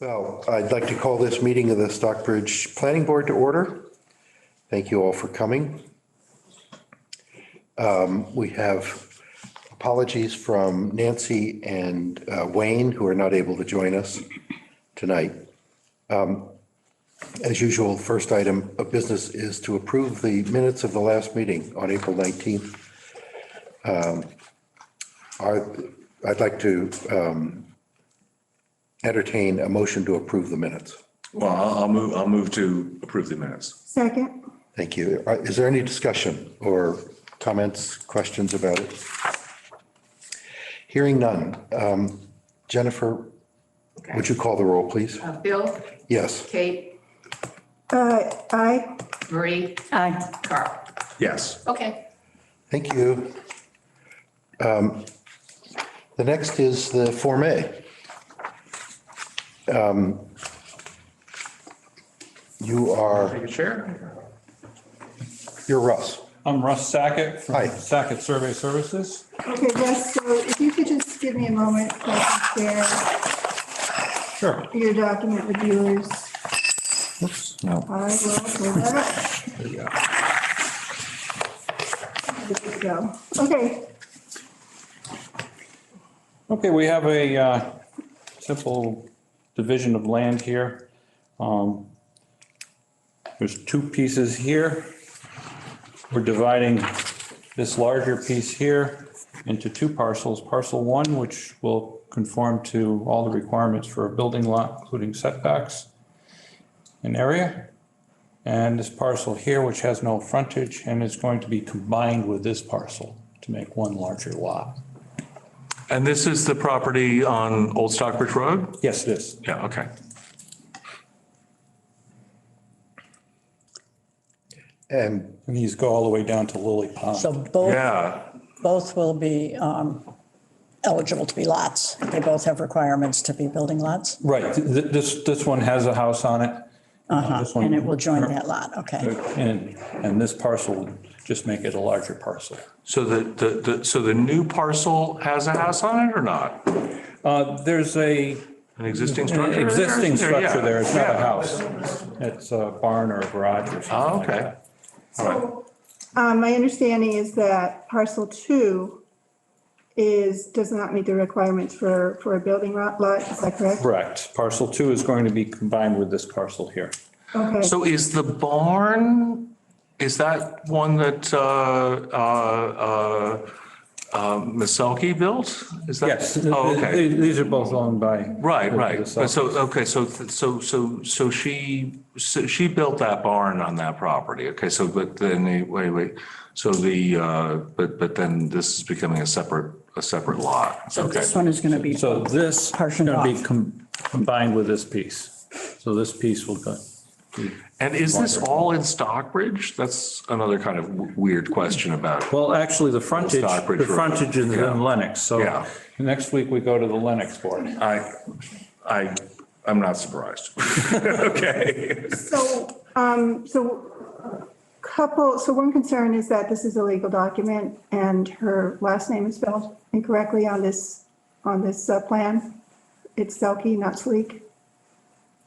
Well, I'd like to call this meeting of the Stockbridge Planning Board to order. Thank you all for coming. Um, We have apologies from Nancy and uh, Wayne, who are not able to join us tonight. Um, As usual, first item of business is to approve the minutes of the last meeting on April 19th. Um, are- I'd like to uh, entertain a motion to approve the minutes. Well, I'll, I'll move, I'll move to approve the minutes. Second, Thank you. Uh, Is there any discussion or comments, questions about it? Hearing none. Um, Jennifer, would you call the roll, please? Uh, Bill, Yes. Kate, uh, aye, Marie, Aye. Carl. Yes, Okay. Thank you. Um, The next is the Form A. Um, You are, take a chair. you're Russ. I'm Russ Sackett Hi. from Sackett Survey Services. okay, Russ, so if you could just give me a moment so I can share Sure. your document with viewers. No. I will pull that up. There we go. Okay, Okay, we have a uh, simple division of land here. Um, There's two pieces here. We're dividing this larger piece here into two parcels. Parcel one, which will conform to all the requirements for a building lot, including setbacks and area. And this parcel here, which has no frontage and is going to be combined with this parcel to make one larger lot. And this is the property on Old Stockbridge Road? Yes, it is. Yeah, okay. And And these go all the way down to Lily Pond. So both, Yeah, both will be um, eligible to be lots. They both have requirements to be building lots. Right, th- th- this, this one has a house on it. Uh-huh, And it will join that lot, okay. And, and this parcel would just make it a larger parcel. so the, the, the, so the new parcel has a house on it or not? Uh, There's a An existing structure? existing Yeah. structure there, it's not a Yeah. house. It's a barn or a garage or Oh, something like okay. that. so, um, my understanding is that parcel two is, does not meet the requirements for, for a building lot, lot, is that correct? Correct, parcel two is going to be combined with this parcel here. Okay, So is the barn, is that one that, uh, uh, uh, uh, Ms. Selke built? Is that? Yes, th- Oh, th- okay. th- these are both owned by. Right, the- right. the But South- So, okay, so, so, so, so she, so she built that barn on that property. Okay, so, but then, the- wait, wait. So the, uh, but, but then this is becoming a separate, a separate lot. So this one is going to be, So this is Partitioned going to be off. com- combined with this piece. So this piece will go, And is this all in Stockbridge? That's another kind of w- weird question about. well, actually, the frontage, Stockbridge the Road. frontage is Yeah. in Lennox, so Yeah. next week we go to the Lennox board. I, I, I'm not surprised. Okay. so, um, so couple, so one concern is that this is a legal document and her last name is spelled incorrectly on this, on this uh, plan. It's Selkie, not Sleek,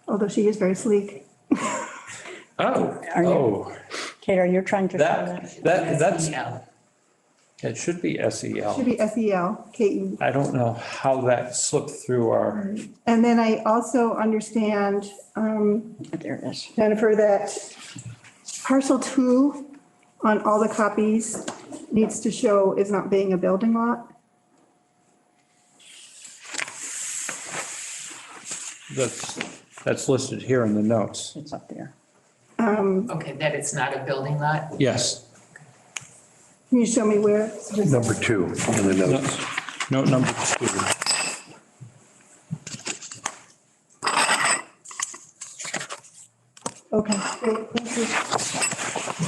although she is very sleek. Oh, are you, Oh, Kate, are you trying to? show that, that, that's, Yeah. it should be Should SEL. be E S-E-L, K-E. I don't know how that slipped through our, And then I also understand, um, There it is. Jennifer, that parcel two on all the copies needs to show is not being a building lot. that's, that's listed here in the notes. It's up there. Okay, that it's not a building lot? Yes, Can you show me where? It's just- number two in the note notes. note number two. Okay, great, thank you.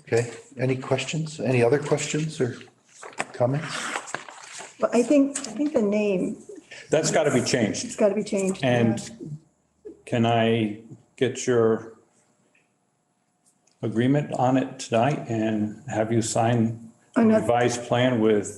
Okay, any questions? Any other questions or comments? Well, I think, I think the name That's got to be changed. has got to be changed. And can I get your agreement on it tonight and have you sign a Another- revised plan with